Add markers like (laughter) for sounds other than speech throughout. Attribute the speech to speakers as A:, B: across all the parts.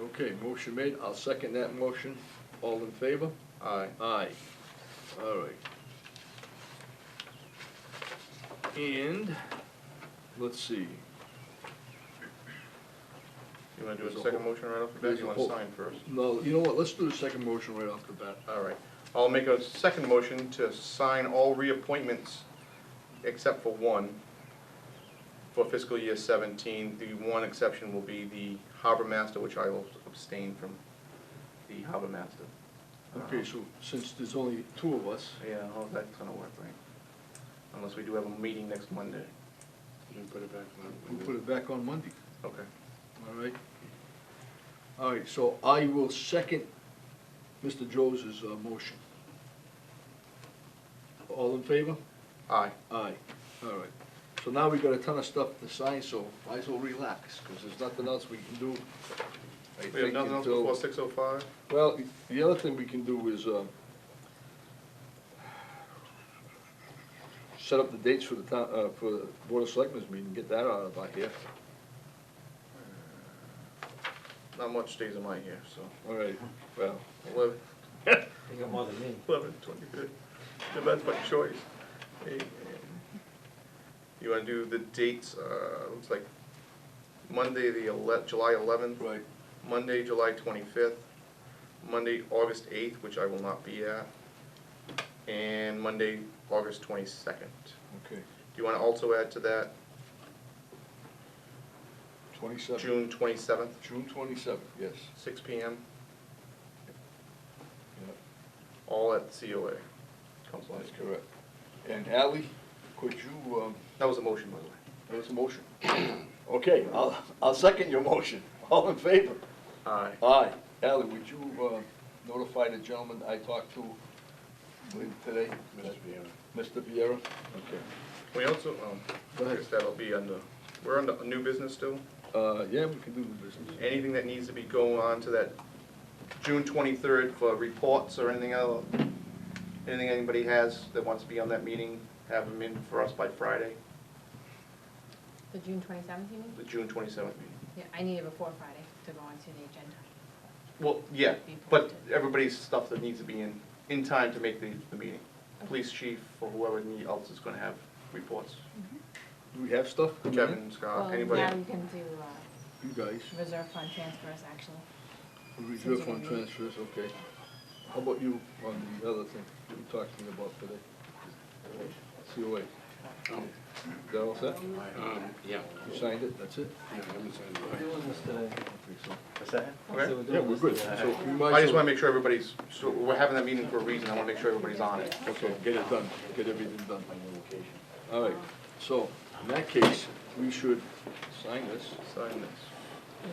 A: Okay, motion made, I'll second that motion. All in favor?
B: Aye.
A: Aye. All right. And, let's see,
B: You wanna do
A: There's
B: a
A: a
B: second
A: whole-
B: motion right off the bat, or
A: there's
B: you
A: a
B: wanna
A: whole-
B: sign first?
A: no, you know what, let's do the second motion right off the bat.
B: All right, I'll make a second motion to sign all reappointments except for one for fiscal year seventeen. The one exception will be the harbor master, which I will abstain from the harbor master.
A: Okay, so since there's only two of us,
B: Uh, Yeah, how's that gonna work, right? Unless we do have a meeting next Monday.
C: put it back on.
A: we'll put it back on Monday,
B: Okay.
A: all right? All right, so I will second Mr. Joe's uh, motion. All in favor?
B: Aye.
A: Aye, all right. So now we got a ton of stuff to sign, so might as well relax, because there's nothing else we can do. I
B: We have
A: think,
B: nothing else
A: until-
B: before six oh five?
A: Well, the other thing we can do is, um, set up the dates for the town, uh, for the Board of Selectmen's meeting, get that out of our here.
B: Not much days am I here, so
A: All right, well,
B: eleven,
C: You got more than me.
B: eleven, twenty-good. That's my choice. Hey, um, You wanna do the dates, uh, looks like Monday, the ele- July eleventh,
A: right,
B: Monday, July twenty-fifth, Monday, August eighth, which I will not be at, and Monday, August twenty-second.
A: okay,
B: Do you wanna also add to that
A: twenty-seven,
B: June twenty-seventh,
A: June twenty-seven, yes,
B: six P M,
A: yeah,
B: all at COA. Council on
A: that's
B: Aging.
A: correct. And Ally, could you, um,
B: That was a motion, by the way.
A: that was a motion. (clears throat) Okay, I'll, I'll second your motion, (laughs) all in favor?
B: Aye.
A: Aye. Ally, would you uh, notify the gentleman I talked to today?
C: Mr. Vieira.
A: Mr. Vieira? Okay.
B: We also, um,
A: Go
B: I
A: ahead.
B: guess that'll be under, we're under new business still.
A: Uh, yeah, we can do the business.
B: Anything that needs to be going on to that June twenty-third for reports or anything else? Anything anybody has that wants to be on that meeting, have them in for us by Friday,
D: The June twenty-seventh, you mean?
B: the June twenty-seventh meeting.
D: Yeah, I need it before Friday to go onto the agenda.
B: Well, yeah, but everybody's stuff that needs to be in, in time to make the, the meeting. Police chief or whoever need- else is gonna have reports.
A: Do we have stuff? coming in?
B: Kevin,
D: Well,
B: Scott, anybody?
D: Now you can do uh,
A: You guys,
D: reserve fund transfers, actually.
A: reserve
D: Since you
A: fund
D: didn't meet.
A: transfers, okay. How about you on the other thing you talked to me about today? COA. Is that all set? You
C: Um, yeah.
A: signed it, that's it?
C: Yeah, I haven't signed
E: We're
C: mine.
E: doing this today.
A: Okay, so-
E: What's that?
B: Okay.
A: Yeah, we're good. So we might
B: I
A: as
B: just wanna
A: well-
B: make sure everybody's, so we're having that meeting for a reason, I wanna make sure everybody's on it.
A: Okay, get it done, get everything done. All right, so in that case, we should sign this.
B: Sign this.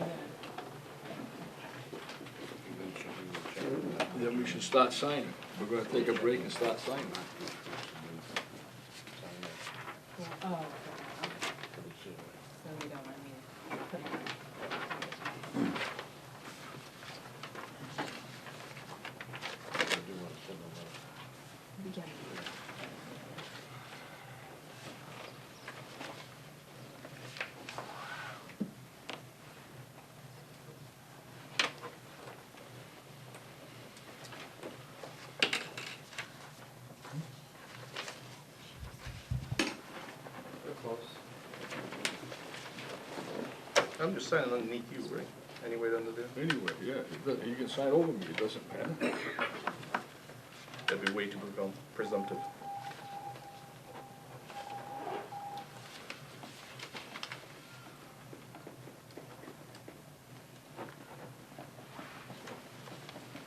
D: Yeah.
A: Then we should start signing. We're gonna take a break and start signing.
D: Yeah. Oh, okay, okay. so we don't want me to put it on. Yeah.
B: I'm just signing underneath you, right? Any way under there?
A: Anyway, yeah, it doesn't- you can sign over me, it doesn't matter.
B: That'd be way too presum- presumptive.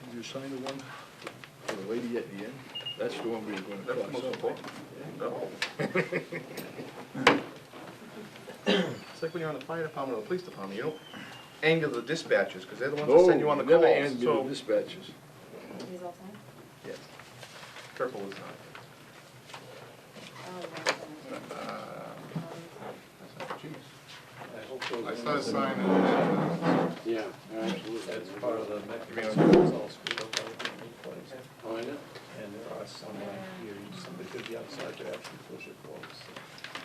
A: Did you sign the one for the lady at the end? That's the one we were gonna
B: That's the
A: cross
B: most
A: out.
B: important. No.
A: (laughs)
B: It's like when you're on the fire department or the police department, you don't anger the dispatchers, because they're the ones that
A: No,
B: send you
A: you
B: on the
A: never end the
B: calls, so.
A: dispatches.
D: These all signed?
B: Yes. Purple is not.
D: Oh, yeah.
B: Uh, Jeez.
C: Hopefully-
B: I started signing. uh,
C: Yeah, absolutely.
E: That's part of the mechanism, it's all screwed up, everything we place.
C: Oh, is it?
E: And there are some, uh, here, somebody could be outside to actually push it close.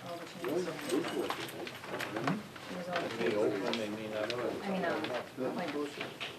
D: Oh, all the
C: Really?
D: changes.
C: Those were-
D: It was all the
E: They
D: changes.
E: open, they may not.
D: I mean, um, like,